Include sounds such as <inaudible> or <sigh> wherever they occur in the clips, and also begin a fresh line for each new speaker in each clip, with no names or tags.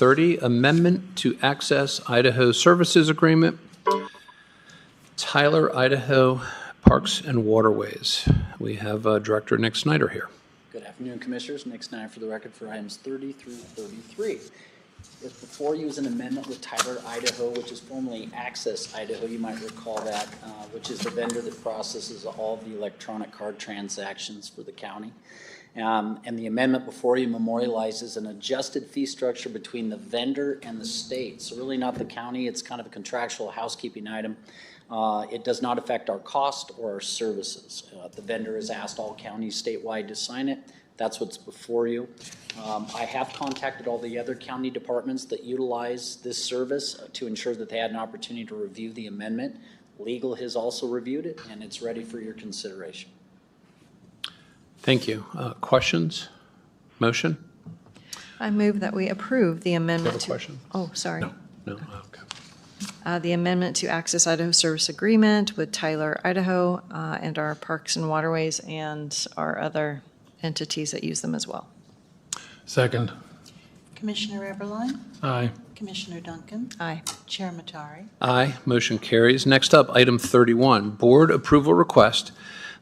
30, Amendment to Access Idaho Services Agreement, Tyler, Idaho Parks and Waterways. We have uh, Director Nick Snyder here.
Good afternoon, Commissioners. Nick Snyder for the record for items 30 through 33. If before you is an amendment with Tyler, Idaho, which is formerly Access Idaho, you might recall that, uh, which is the vendor that processes all of the electronic card transactions for the county. Um, And the amendment before you memorializes an adjusted fee structure between the vendor and the state. So really not the county, it's kind of a contractual housekeeping item. Uh, It does not affect our cost or our services. Uh, The vendor has asked all counties statewide to sign it. That's what's before you. Um, I have contacted all the other county departments that utilize this service uh, to ensure that they had an opportunity to review the amendment. Legal has also reviewed it, and it's ready for your consideration.
Thank you. Uh, Questions? Motion?
I move that we approve the amendment.
have a
to-
question?
Oh, sorry.
No? Okay.
Uh, The amendment to Access Idaho Service Agreement with Tyler, Idaho, uh, and our Parks and Waterways and our other entities that use them as well.
Second.
Commissioner Eberline,
Aye.
Commissioner Duncan,
Aye.
Chair Matari.
Aye, motion carries. Next up, item 31, Board Approval Request.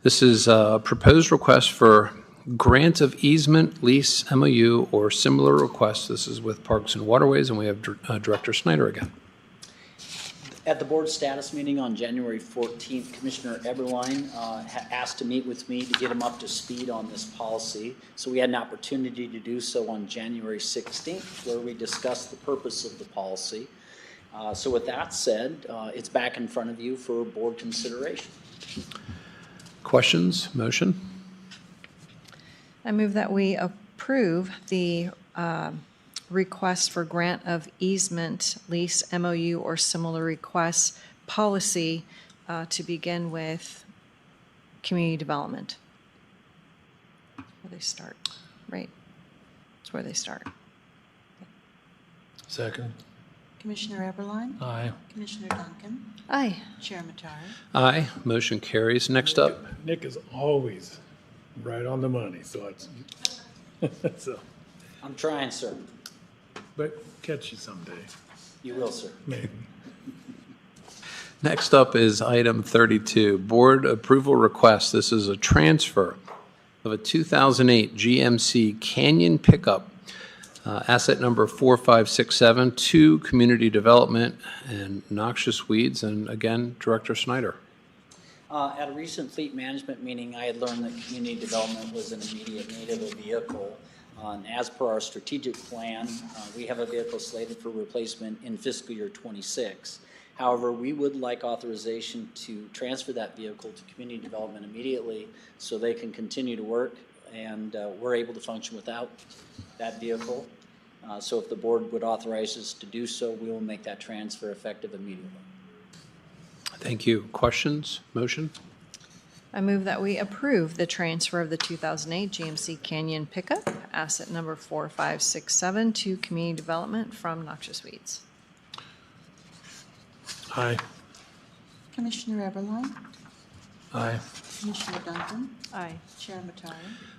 This is a proposed request for grant of easement, lease, MOU, or similar request. This is with Parks and Waterways, and we have Dir- uh, Director Snyder again.
At the board status meeting on January 14th, Commissioner Eberline uh, ha- asked to meet with me to get him up to speed on this policy. So we had an opportunity to do so on January 16th, where we discussed the purpose of the policy. Uh, So with that said, uh, it's back in front of you for board consideration.
Questions? Motion?
I move that we approve the um, request for grant of easement, lease, MOU, or similar requests policy uh, to begin with community development. Where they start, right? That's where they start.
Second.
Commissioner Eberline,
Aye.
Commissioner Duncan,
Aye.
Chair Matari.
Aye, motion carries. Next up,
Nick is always right on the money, so it's, <laughs> so,
I'm trying, sir.
but catch you someday,
You will, sir.
maybe.
Next up is item 32, board approval request. This is a transfer of a 2008 GMC Canyon pickup, uh, asset number 4567, to Community Development and Noxious Weeds. And again, Director Snyder.
Uh, At a recent fleet management meeting, I had learned that community development was an immediate need of a vehicle. Uh, And as per our strategic plan, uh, we have a vehicle slated for replacement in fiscal year '26. However, we would like authorization to transfer that vehicle to community development immediately so they can continue to work and uh, we're able to function without that vehicle. Uh, So if the board would authorize us to do so, we will make that transfer effective immediately.
Thank you. Questions? Motion?
I move that we approve the transfer of the 2008 GMC Canyon pickup, asset number 4567, to community development from noxious weeds.
Aye.
Commissioner Eberline,
Aye.
Commissioner Duncan,
Aye.
Chair Matari.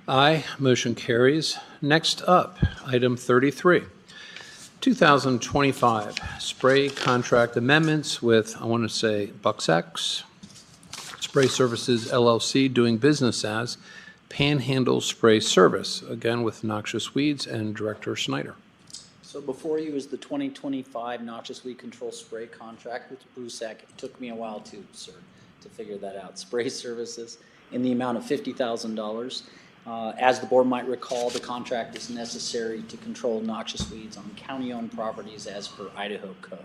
Aye, motion carries. Next up, item 33, 2025 spray contract amendments with, I want to say, Bucks X Spray Services LLC, doing business as Panhandle Spray Service, again with Noxious Weeds and Director Snyder.
So before you is the 2025 noxious weed control spray contract with Brusac. It took me a while to, sir, to figure that out. Spray services in the amount of $50,000. Uh, As the board might recall, the contract is necessary to control noxious weeds on county-owned properties as per Idaho code.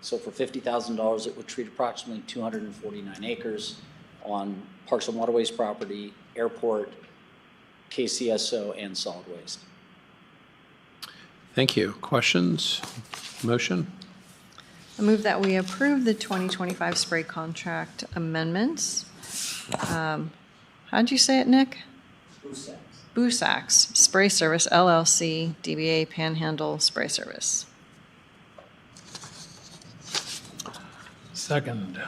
So for $50,000, it would treat approximately 249 acres on Parks and Waterways property, airport, KCSO, and solid waste.
Thank you. Questions? Motion?
I move that we approve the 2025 spray contract amendments. Um, How'd you say it, Nick?
Brusac.
Busax Spray Service LLC, DBA Panhandle Spray Service.
Second.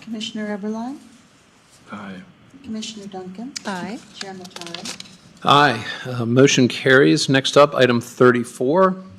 Commissioner Eberline,
Aye.
Commissioner Duncan,
Aye.
Chair Matari.
Aye, Uh, motion carries. Next up, item 34,